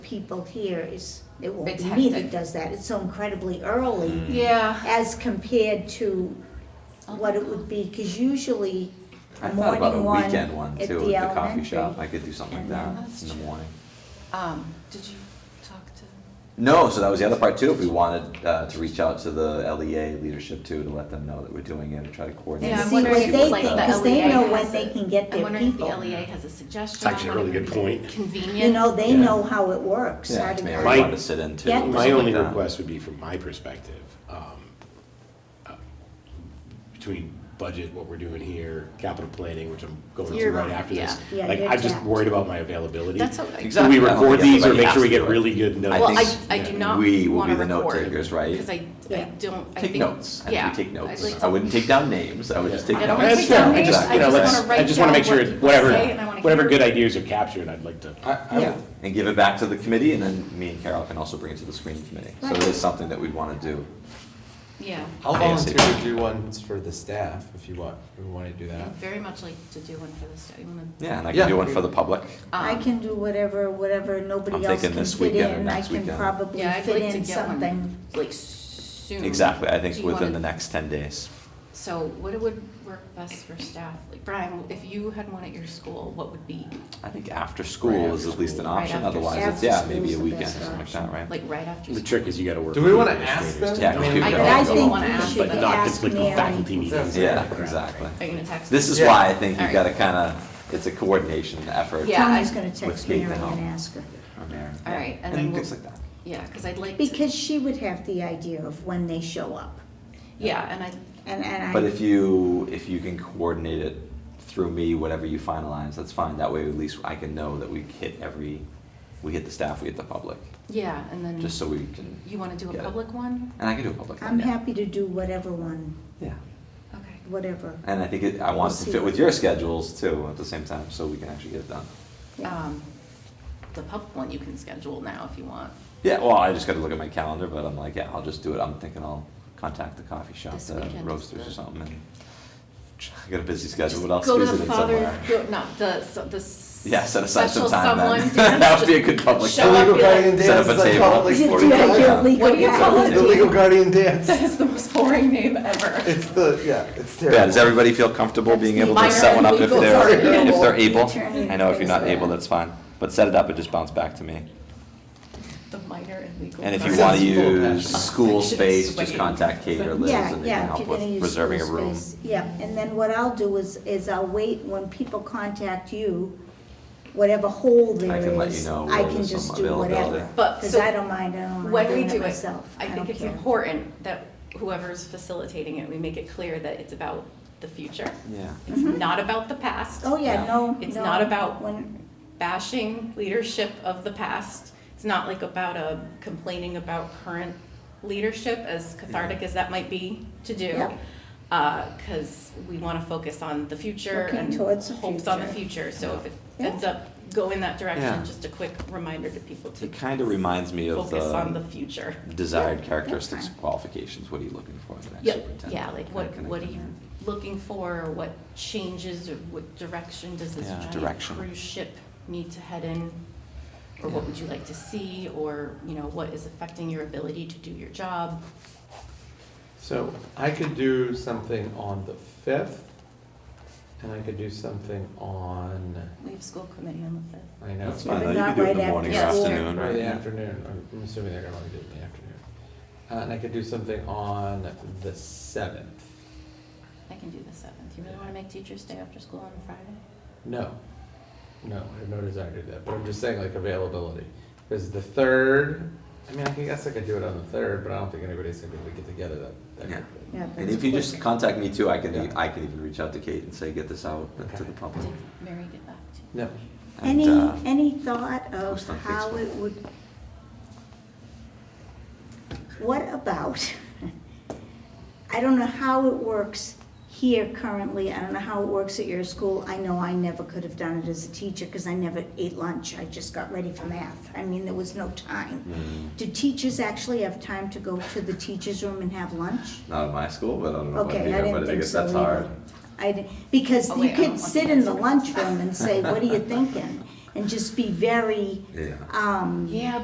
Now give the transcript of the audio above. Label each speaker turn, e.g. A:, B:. A: people here is, it won't
B: It's
A: be me that
B: hectic.
A: does that, it's so incredibly early
C: Mm.
B: Yeah.
A: as compared to what it would be, because usually
C: I
A: a
C: thought about a
A: morning one
C: weekend one
A: at
C: too,
A: the
C: at the coffee shop,
A: elementary.
C: I could do something like
A: and then-
C: that in the morning.
B: Um, did you talk to?
C: No, so that was the other part too, if we wanted uh, to reach out to the LEA leadership too, to let them know that we're doing it, uh, and try to coordinate.
A: And
B: Yeah, I'm
C: see
A: see
C: what
A: what
B: wondering
A: they
B: if,
C: the-
B: like,
A: think,
B: the
A: because they
B: LEA
A: know when
B: has
A: they
B: it.
A: can get
B: I'm
A: their
B: wondering if the
A: people.
B: LEA has a suggestion.
D: It's actually a
B: on
D: really
B: whatever
D: good point.
B: Convenient.
A: You know, they
C: Yeah.
A: know how it works.
C: Yeah,
A: how to-
C: maybe
D: I
C: we
D: My-
B: Um,
C: wanted to sit in too.
A: Yeah.
C: or
D: My
C: something
D: only
C: like that.
D: request would be from my perspective, um, uh, between budget, what we're doing here, capital planning, which I'm going through
B: You're
D: right
B: right,
D: after this.
A: yeah. Yeah,
D: Like,
A: you're
D: I'm just
A: tapped.
D: worried about my availability.
B: That's okay.
C: Exactly.
D: Do we
C: I don't
D: record
C: think
D: these or
C: everybody
D: make sure we
C: has to
D: get
C: do it.
D: really good
C: I
D: notes?
B: Well, I,
C: think
B: I do not want
C: we
B: to
C: will
B: record.
C: be the note takers, right?
B: Because I, I
A: Yeah.
B: don't, I think.
C: Take notes, I
B: Yeah.
C: think we take notes,
B: like
C: I
B: to-
C: wouldn't take down names, I would just take
B: I
C: notes.
B: don't wanna
D: That's
B: take
D: fair,
B: down
D: I just,
B: names.
D: you know,
B: I just
D: let's,
B: wanna write
D: I just wanna
B: down
D: make sure,
B: what people say, and I
D: whatever,
B: wanna
D: whatever
B: hear-
D: good ideas are captured, I'd like to.
A: Yeah.
C: And give it back to the committee, and then me and Carol can also bring it to the screening committee. So it is something that we'd want to do.
B: Yeah,
E: I'll
C: ASAP.
E: volunteer to do ones for the staff if you want, if you want to do
B: I
E: that.
B: very much like to do one for the study. um,
C: Yeah, and I can do one for the public.
A: I can do whatever, whatever, nobody
C: I'm
A: else
C: thinking
A: can
C: this
A: fit
C: weekend or
A: in, I
C: next
A: can
C: weekend.
A: probably
B: Yeah, I'd
A: fit
B: like to
A: in
B: get one,
A: something.
B: like soon.
C: Exactly, I
B: Do
C: think
B: you
C: within
B: wanna-
C: the next 10 days.
B: So what would work best for staff? Like Brian, if you had one at your school, what would be,
C: I think after
D: Right
C: school is
D: after
C: at least an
D: school.
B: Right
C: option,
B: after
C: otherwise
B: school.
C: it's, yeah,
A: After
C: maybe a
A: school's the
C: weekend or
A: best
C: something like that, right?
B: like right after?
D: The
B: school?
D: trick is you gotta work.
E: Do
D: with
E: we
D: the
E: wanna
D: administrators
E: ask them?
D: to
C: Yeah,
D: do
C: we
D: it,
C: should
B: I-
C: go.
B: I also
A: think
B: wanna
A: we
B: ask
A: should
D: But
B: them.
D: not
A: ask
D: conflict
A: Mary.
D: with faculty meetings.
C: Yeah, exactly.
B: Are you gonna text?
C: This is
E: Yeah.
C: why I think you've
B: Alright.
C: got to kind of, it's a coordination effort.
B: Yeah, I-
A: Tony's gonna text
C: Kate
A: Mary
C: to help.
A: and ask her,
C: from there.
B: All right, and then
C: And
B: we'll-
C: things like that.
B: Yeah, because I'd like to.
A: because she would have the idea of when they show up,
B: Yeah, and I,
A: and, and I.
C: But if you, if you can coordinate it through me, whatever you finalize, that's fine. That way at least I can know that we hit every, we hit the staff, we hit the public,
B: yeah, and then.
C: just so we can.
B: Mm-hmm. You want to do
C: get
B: a
C: it.
B: public one?
C: And I can do a public one,
A: I'm
C: yeah.
A: happy to do whatever one,
C: Yeah.
B: Okay.
A: whatever.
C: And I think it, I want it to fit with your schedules too at the same time, so we can actually get it done.
A: Yeah.
B: Um, the public one you can schedule now if you want.
C: Yeah, well, I just gotta look at my calendar, but I'm like, yeah, I'll just do it. I'm thinking I'll contact the coffee shop,
B: This
C: the
B: weekend is
C: roasters or
B: the-
C: something and I got a busy schedule,
B: Just
C: what else
B: go to
C: is
B: the
C: it in
B: father-
C: somewhere?
B: go- No, the, so- the. s-
C: Yeah, set aside some
B: special
C: time then.
B: someone to
C: That would be a good
B: just
C: public
B: Show up,
C: Illegal
B: be like,
C: Set up a table.
A: like,
C: Forty
A: Yeah,
C: people.
A: yeah, legal
B: What do you call it?
C: Yeah.
B: Illegal
E: guardian dance.
B: that is the most boring name ever.
E: It's the, yeah, it's
C: Yeah, does everybody feel comfortable being able to
B: Minor
C: set one up if
B: legal
C: they're,
B: party.
C: if they're able?
A: Attorney
C: I know if you're not
A: things like
C: able,
A: that.
C: that's fine, but set it up, it just bounced back to me.
B: The minor and legal.
C: And if you
E: Sounds
C: wanna
E: full of
C: use
E: passion.
C: school
B: Section
C: space, just
B: swing.
C: contact Kate or Liz
A: Yeah,
C: and they can
A: yeah, if
C: help
A: you're gonna
C: with
A: use
C: reserving a
A: school
C: room.
A: space, Yeah, and then what I'll do is, is I'll wait when people contact you, whatever hole there
C: can let you
A: is,
C: know
A: I
C: when
A: can
C: there's
A: just
C: some
A: do whatever.
C: availability.
B: But
A: Because
B: so
A: I don't mind, I don't mind
B: When we
A: doing it
B: do it,
A: myself.
B: I think
A: don't
B: it's
A: care.
B: important that whoever's facilitating it, we make it clear that it's about the future.
C: Yeah.
B: It's
A: Mhm.
B: not about the past.
A: Oh, yeah,
C: Yeah.
A: no,
B: It's
A: no,
B: not about-
A: when-
B: bashing leadership of the past. It's not like about a complaining about current leadership, as cathartic as that might be to do.
A: Yeah.
B: Because we want to focus on the future
A: Looking
B: and
A: towards the
B: hopes on the
A: future.
B: future. So if it
A: Yeah.
B: ends up go in that direction,
C: Yeah.
B: just a quick reminder to people to
C: It kinda reminds me of
B: focus on the
C: the
B: future.
C: desired
A: that's
C: characteristics
A: fine.
C: and qualifications, what are you looking for in the next
B: Yeah,
C: superintendent?
B: yeah, like
C: Kinda
B: what, what are
C: connecting
B: you
C: that.
B: looking for, or what changes, or what direction does this
C: Yeah,
B: giant
C: direction.
B: cruise ship need to head in? Or what
C: Yeah.
B: would you like to see, or, you know, what is affecting your ability to do your job?
E: So I could do something on the fifth, and I could do something on,
B: We have school committee on the fifth.
E: I know.
C: That's
A: Yeah,
C: fine,
A: but
C: though. you
A: not
C: can do it in
A: right
C: the morning or
B: after school.
C: afternoon,
E: Or the
C: right?
E: afternoon, or I'm assuming they're gonna want to do it in the afternoon. Uh, and I could do something on the seventh.
B: I can do the seventh. You really wanna make teachers stay after school on a Friday?
E: No, no, I have no desire to do that, but I'm just saying like availability. Because the third, I mean, I guess I could do it on the third, but I don't think anybody's gonna be able to get together that, that
C: Yeah.
E: quickly.
A: Yeah,
C: And
A: that's
C: if you
A: quick.
C: just contact me too, I can,
E: Yeah.
C: I can even reach out to Kate and say, get this out to the public.
B: Did Mary get back to you?
E: No,
C: And,
A: Any,
C: uh,
A: any thought of
C: post on
A: how
C: Facebook.
A: it would? What about, I don't know how it works here currently, I don't know how it works at your school. I know I never could have done it as a teacher, because I never ate lunch, I just got ready for math. I mean, there was no time.
C: Mm,
A: Do teachers actually have time to go to the teachers' room and have lunch?
C: Not at my school, but I don't know if I'd be
A: Okay, I
C: there, but
A: didn't
C: I
A: think
C: guess
A: so
C: that's
A: either.
C: hard.
A: I, di- because
B: Oh,
A: you
B: wait, I don't
A: could
B: want
A: sit
B: the
A: in the
B: answer.
A: lunchroom and say, what are you thinking? And just be very,
C: Yeah.
A: um.
B: Yeah,